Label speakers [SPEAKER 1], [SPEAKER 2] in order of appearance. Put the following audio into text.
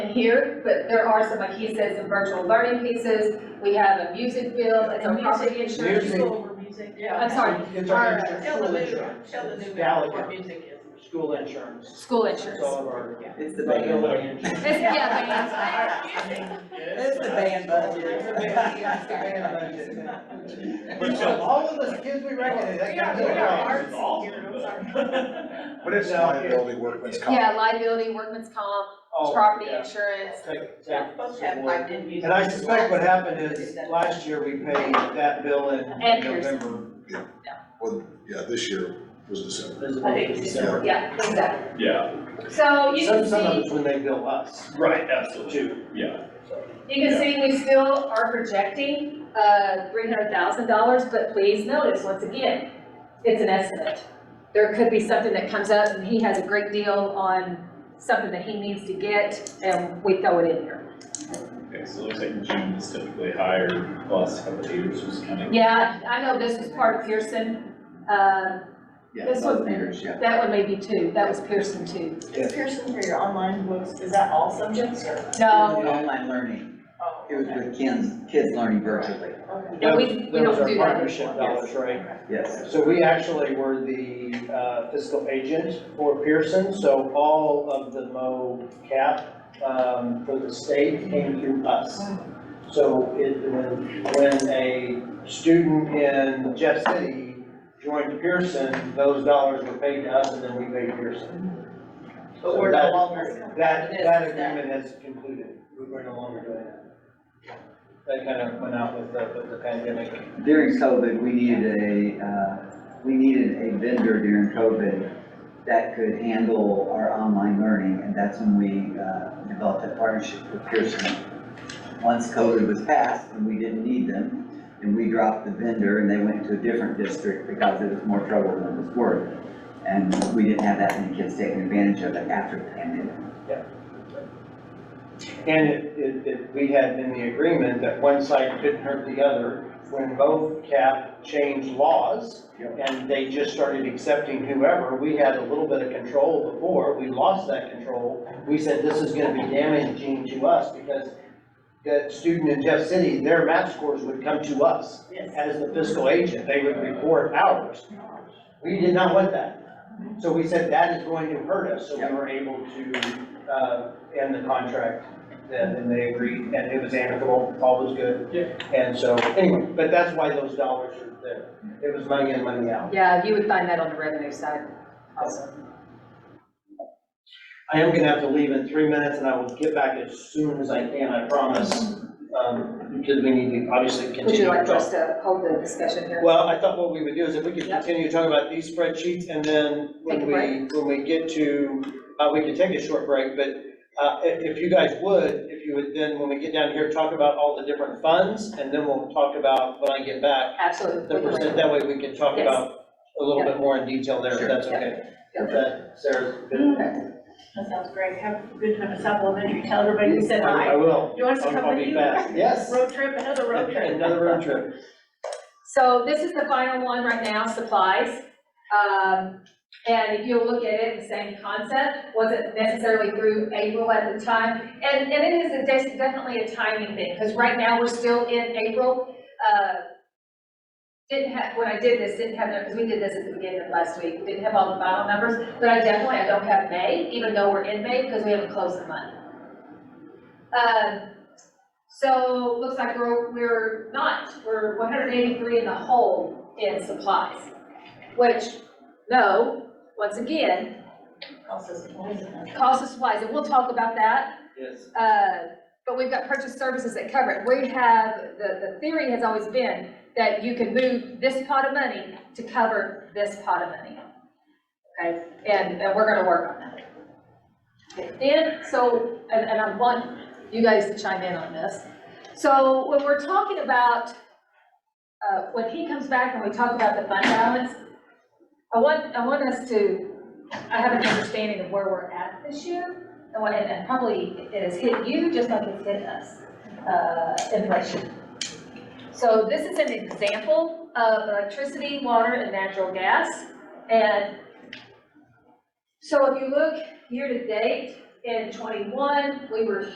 [SPEAKER 1] in here, but there are some, like he said, some virtual learning pieces. We have a music bill, that's our property insurance.
[SPEAKER 2] Music.
[SPEAKER 3] School music, yeah.
[SPEAKER 1] I'm sorry,
[SPEAKER 2] It's our
[SPEAKER 1] Alright.
[SPEAKER 2] insurance,
[SPEAKER 3] Tell the
[SPEAKER 2] school
[SPEAKER 3] new,
[SPEAKER 2] insurance.
[SPEAKER 3] tell the
[SPEAKER 2] It's
[SPEAKER 3] new
[SPEAKER 2] Gallagher.
[SPEAKER 3] what music is.
[SPEAKER 2] School insurance.
[SPEAKER 1] school
[SPEAKER 2] It's
[SPEAKER 1] insurance.
[SPEAKER 2] all of our.
[SPEAKER 4] It's the band
[SPEAKER 2] Illinois
[SPEAKER 4] budget.
[SPEAKER 2] insurance.
[SPEAKER 1] It's, yeah,
[SPEAKER 4] It's the band budget. It's the band budget.
[SPEAKER 2] But so all of the kids we recognize, that
[SPEAKER 3] We are,
[SPEAKER 2] comes
[SPEAKER 3] we are
[SPEAKER 2] across.
[SPEAKER 3] artsy here, I'm sorry.
[SPEAKER 5] But it's
[SPEAKER 2] Now,
[SPEAKER 5] liability
[SPEAKER 1] bands.
[SPEAKER 5] workman's comp.
[SPEAKER 1] Yeah, liability, workman's comp,
[SPEAKER 2] Oh,
[SPEAKER 1] property
[SPEAKER 2] yeah.
[SPEAKER 1] insurance.
[SPEAKER 2] Take- take-
[SPEAKER 3] Yeah, Folks have piped in music.
[SPEAKER 2] And I suspect what happened is, last year we paid that bill in
[SPEAKER 1] And yours.
[SPEAKER 2] November.
[SPEAKER 5] Well, yeah, this year was December.
[SPEAKER 3] I think it's
[SPEAKER 5] December.
[SPEAKER 1] Yeah, exactly.
[SPEAKER 6] Yeah,
[SPEAKER 1] So you
[SPEAKER 2] Some,
[SPEAKER 1] can
[SPEAKER 2] some of
[SPEAKER 1] see,
[SPEAKER 2] it's when they bill us,
[SPEAKER 6] right, absolutely,
[SPEAKER 2] too.
[SPEAKER 6] yeah.
[SPEAKER 1] you can see we still are projecting, uh, three hundred thousand dollars, but please notice, once again, it's an estimate. There could be something that comes up and he has a great deal on something that he needs to get and we throw it in here.
[SPEAKER 6] Okay, so it looks like June is typically higher, last couple of years was kind of.
[SPEAKER 1] Yeah, I know this was part of Pearson, uh,
[SPEAKER 4] Yeah,
[SPEAKER 1] This
[SPEAKER 4] both
[SPEAKER 1] one.
[SPEAKER 4] years, yeah.
[SPEAKER 1] that one may be two, that was Pearson two.
[SPEAKER 3] Is Pearson for your online books, is that all subjects or?
[SPEAKER 1] No,
[SPEAKER 4] It was Online learning.
[SPEAKER 3] Oh,
[SPEAKER 4] It was
[SPEAKER 3] okay,
[SPEAKER 4] with kids, kids learning virtually.
[SPEAKER 3] okay.
[SPEAKER 1] Yeah, we- we
[SPEAKER 2] That was-
[SPEAKER 1] don't do
[SPEAKER 2] That was our
[SPEAKER 1] that.
[SPEAKER 2] partnership dollars, right?
[SPEAKER 4] Yes.
[SPEAKER 2] So we actually were the uh, fiscal agent for Pearson, so all of the Mo cap um, for the state came through us. So it, when when a student in Jeff City joined Pearson, those dollars were paid to us and then we paid Pearson.
[SPEAKER 3] But we're no longer.
[SPEAKER 2] That, that agreement has concluded, we're no longer doing that. That kind of went out with the, with the pandemic.
[SPEAKER 4] During COVID, we needed a, uh, we needed a vendor during COVID that could handle our online learning, and that's when we uh, developed a partnership with Pearson. Once COVID was passed and we didn't need them, and we dropped the vendor and they went to a different district because it was more trouble than it was worth. And we didn't have that many kids taking advantage of it after the pandemic.
[SPEAKER 2] And it, it, it, we had in the agreement that one side couldn't hurt the other, when both cap changed laws,
[SPEAKER 4] Yep.
[SPEAKER 2] and they just started accepting whoever, we had a little bit of control before, we lost that control. We said, this is gonna be damaging to us, because that student in Jeff City, their math scores would come to us
[SPEAKER 3] Yes.
[SPEAKER 2] as the fiscal agent, they would report ours. We did not want that. So we said that is going to hurt us, so we were able to, uh, end the contract. And, and they agreed, and it was amicable, all was good. And so, anyway, but that's why those dollars are there. It was money in, money out.
[SPEAKER 1] yeah, you would find that on the revenue side also.
[SPEAKER 2] I am gonna have to leave in three minutes and I will get back as soon as I can, I promise. Um, because we need to obviously continue.
[SPEAKER 1] Would you like
[SPEAKER 2] to talk.
[SPEAKER 1] us to hold the discussion here?
[SPEAKER 2] Well, I thought what we would do is if we could
[SPEAKER 1] Yep.
[SPEAKER 2] continue talking about these spreadsheets and then
[SPEAKER 1] Take
[SPEAKER 2] when
[SPEAKER 1] a
[SPEAKER 2] we, when we get to, uh, we could take a short break, but, uh, i- if, you guys would, if you would then, when we get down here, talk about all the different funds and then we'll talk about, when I get back,
[SPEAKER 1] Absolutely.
[SPEAKER 2] the percent, that way we can talk
[SPEAKER 1] Yes.
[SPEAKER 2] about a little
[SPEAKER 1] Yep.
[SPEAKER 2] bit more in detail there, if
[SPEAKER 4] Sure.
[SPEAKER 2] that's
[SPEAKER 1] Yep.
[SPEAKER 2] okay.
[SPEAKER 4] Yep.
[SPEAKER 2] That, Sarah's been.
[SPEAKER 3] That sounds great, have a good time at South Elementary, tell everybody you said
[SPEAKER 2] I
[SPEAKER 3] hi.
[SPEAKER 2] I will.
[SPEAKER 3] You want us to
[SPEAKER 2] I'll-
[SPEAKER 3] come
[SPEAKER 2] I'll
[SPEAKER 3] with
[SPEAKER 2] be
[SPEAKER 3] you?
[SPEAKER 2] fast. Yes.
[SPEAKER 3] Road trip, another road trip.
[SPEAKER 2] Another road trip.
[SPEAKER 1] So this is the final one right now, supplies. Um, and if you'll look at it, the same concept, wasn't necessarily through April at the time. And, and it is a des- definitely a timing thing, because right now we're still in April. Uh, Didn't have, when I did this, didn't have, because we did this at the beginning of last week, didn't have all the final numbers. But I definitely, I don't have May, even though we're in May, because we haven't closed the month. Um, so looks like we're, we're not, we're one hundred eighty-three in the hole in supplies, which, no, once again,
[SPEAKER 3] Cost us a fortune.
[SPEAKER 1] cost of supplies, and we'll talk about that.
[SPEAKER 2] Yes.
[SPEAKER 1] Uh, but we've got purchase services that cover it. We have, the, the theory has always been that you can move this pot of money to cover this pot of money. Okay, and, and we're gonna work on that. Okay, Then, so, and, and I want you guys to chime in on this. So when we're talking about, uh, when he comes back and we talk about the fund balance, I want, I want us to, I have an understanding of where we're at this year. And what- and- and probably it has hit you just like it's hit us, uh, inflation. So this is an example of electricity, water, and natural gas. And so if you look year-to-date, in '21, we were